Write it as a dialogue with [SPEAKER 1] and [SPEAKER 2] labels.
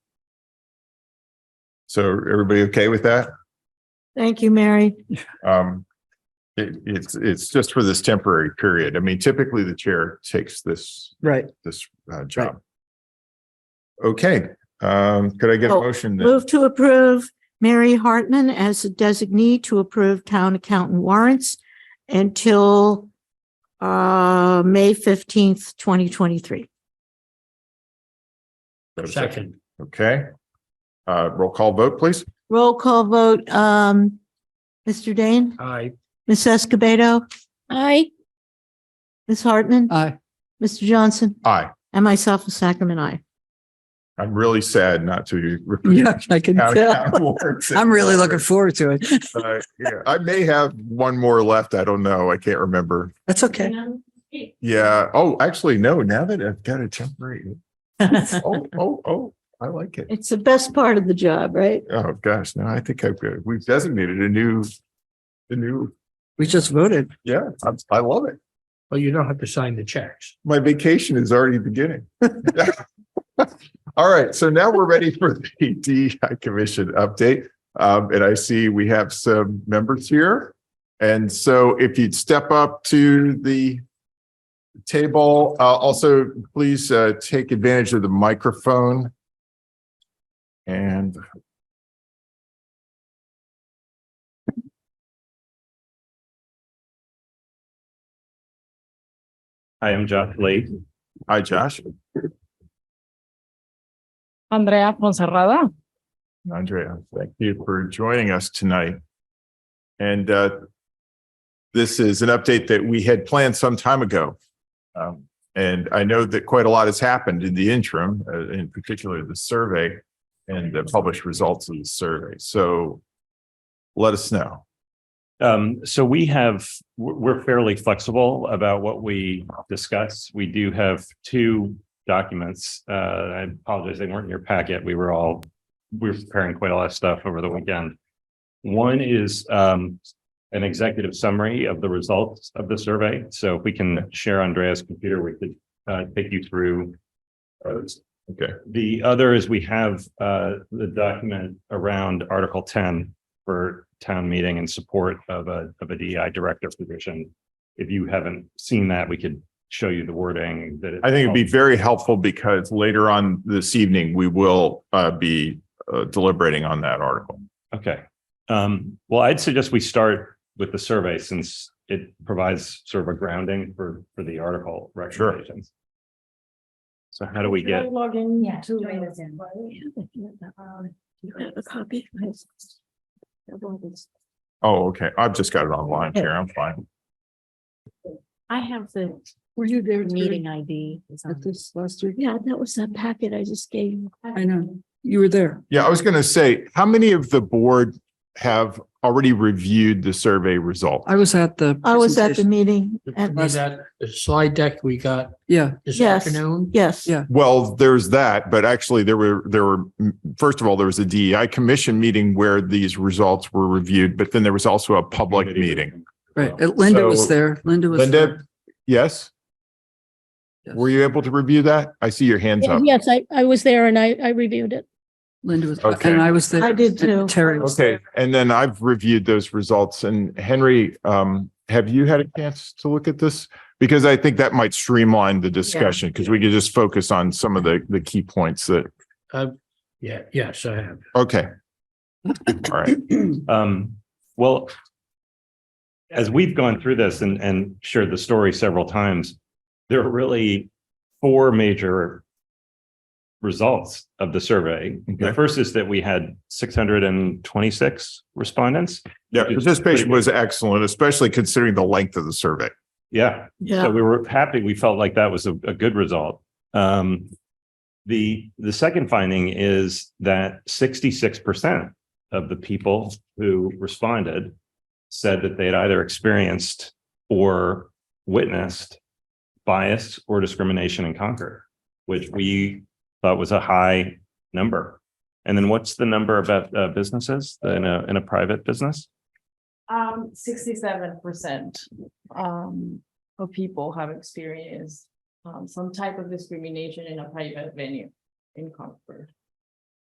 [SPEAKER 1] So everybody okay with that?
[SPEAKER 2] Thank you, Mary.
[SPEAKER 1] Um, it, it's, it's just for this temporary period. I mean, typically the chair takes this,
[SPEAKER 3] Right.
[SPEAKER 1] this, uh, job. Okay, um, could I get a
[SPEAKER 2] Oh,
[SPEAKER 1] motion? then?
[SPEAKER 2] Move to approve Mary Hartman as a designee to approve town accountant warrants until uh, May fifteenth, twenty twenty-three.
[SPEAKER 1] Have a
[SPEAKER 4] Second,
[SPEAKER 1] Okay. Uh, roll call vote, please.
[SPEAKER 2] Roll call vote, um, Mr. Dane,
[SPEAKER 4] aye.
[SPEAKER 2] Ms. Escobedo. Aye. Ms. Hartman,
[SPEAKER 3] Aye.
[SPEAKER 2] Mr. Johnson,
[SPEAKER 1] Aye.
[SPEAKER 2] and myself, a Sacramento I.
[SPEAKER 1] I'm really sad not to.
[SPEAKER 3] Yeah, I can tell. I'm really looking forward to it.
[SPEAKER 1] Uh, yeah, I may have one more left. I don't know. I can't remember.
[SPEAKER 3] That's okay.
[SPEAKER 1] Yeah. Oh, actually, no, now that I've got a temporary. Oh, oh, oh, I like it.
[SPEAKER 2] It's the best part of the job, right?
[SPEAKER 1] Oh, gosh, no, I think I've, got- we've designated a new, a new,
[SPEAKER 3] We just voted.
[SPEAKER 1] yeah, I, I love it.
[SPEAKER 4] Well, you don't have to sign the checks.
[SPEAKER 1] My vacation is already beginning. All right, so now we're ready for the DEI Commission update. Um, and I see we have some members here. And so if you'd step up to the table, uh, also please, uh, take advantage of the microphone. And
[SPEAKER 5] I am Josh Lake.
[SPEAKER 1] hi, Josh,
[SPEAKER 6] Andrea Fonserrada.
[SPEAKER 1] Andrea, thank you for joining us tonight. And, uh, this is an update that we had planned some time ago. Um, and I know that quite a lot has happened in the interim, uh, in particular the survey and the published results of the survey. So let us know.
[SPEAKER 5] Um, so we have, we're we're fairly flexible about what we discuss. We do have two documents. Uh, I apologize, they weren't in your packet. We were all, we were preparing quite a lot of stuff over the weekend. One is, um, an executive summary of the results of the survey. So if we can share Andrea's computer, we could, uh, take you through those.
[SPEAKER 1] Okay.
[SPEAKER 5] The other is we have, uh, the document around Article ten, for town meeting in support of a, of a DEI director position. If you haven't seen that, we could show you the wording that.
[SPEAKER 1] I think it'd
[SPEAKER 5] Oh.
[SPEAKER 1] be very helpful because later on this evening, we will uh, be uh, deliberating on that article.
[SPEAKER 5] Okay. Um, well, I'd suggest we start with the survey since it provides sort of a grounding for, for the article recommendations. So how do we get,
[SPEAKER 2] Log in
[SPEAKER 6] Yeah, to- join us in.
[SPEAKER 2] Um, You have a copy?
[SPEAKER 1] Oh, okay. I've just got it online here. I'm fine.
[SPEAKER 2] I have the
[SPEAKER 3] Were you there?
[SPEAKER 6] Meeting ID. is on.
[SPEAKER 3] At this last week?
[SPEAKER 2] Yeah, that was that packet I just gave you.
[SPEAKER 3] I know. You were there.
[SPEAKER 1] Yeah, I was going to say, how many of the board have already reviewed the survey result?
[SPEAKER 3] I was at the.
[SPEAKER 2] I was at the
[SPEAKER 3] presentation.
[SPEAKER 2] meeting and
[SPEAKER 4] That the slide deck we got
[SPEAKER 3] Yeah,
[SPEAKER 4] this
[SPEAKER 2] Yes.
[SPEAKER 4] afternoon.
[SPEAKER 2] yes.
[SPEAKER 3] Yeah.
[SPEAKER 1] Well, there's that, but actually there were, there were, mm, first of all, there was a DEI commission meeting where these results were reviewed, but then there was also a public
[SPEAKER 5] Committee.
[SPEAKER 1] meeting.
[SPEAKER 3] right. And Linda was
[SPEAKER 1] Oh. So-
[SPEAKER 3] there. Linda was.
[SPEAKER 1] Linda,
[SPEAKER 3] there.
[SPEAKER 1] yes? Were you able to review that? I see your hands up.
[SPEAKER 7] Yes, I, I was there and I, I reviewed it.
[SPEAKER 3] Linda was,
[SPEAKER 1] Okay.
[SPEAKER 3] and I was there.
[SPEAKER 2] I did
[SPEAKER 3] and
[SPEAKER 2] too.
[SPEAKER 3] Terry was.
[SPEAKER 1] Okay, and then I've reviewed those results and Henry, um, have you had a chance to look at this? Because I think that might streamline the discussion because we could just focus on some of the, the key points that,
[SPEAKER 4] Yeah, yes, I have.
[SPEAKER 1] okay. All right,
[SPEAKER 5] um, well, as we've gone through this and, and shared the story several times, there are really four major results of the survey.
[SPEAKER 1] Okay.
[SPEAKER 5] The first is that we had six hundred and twenty-six respondents.
[SPEAKER 1] yeah, participation was excellent, especially considering the length of the survey.
[SPEAKER 5] Yeah, so
[SPEAKER 2] Yeah,
[SPEAKER 5] we were happy. We felt like that was a, a good result. Um, the, the second finding is that sixty-six percent of the people who responded said that they had either experienced or witnessed bias or discrimination in Concord, which we thought was a high number. And then what's the number about uh, businesses in a, in a private business?
[SPEAKER 6] Um, sixty-seven percent, um, of people have experienced, um, some type of discrimination in a private venue in Concord.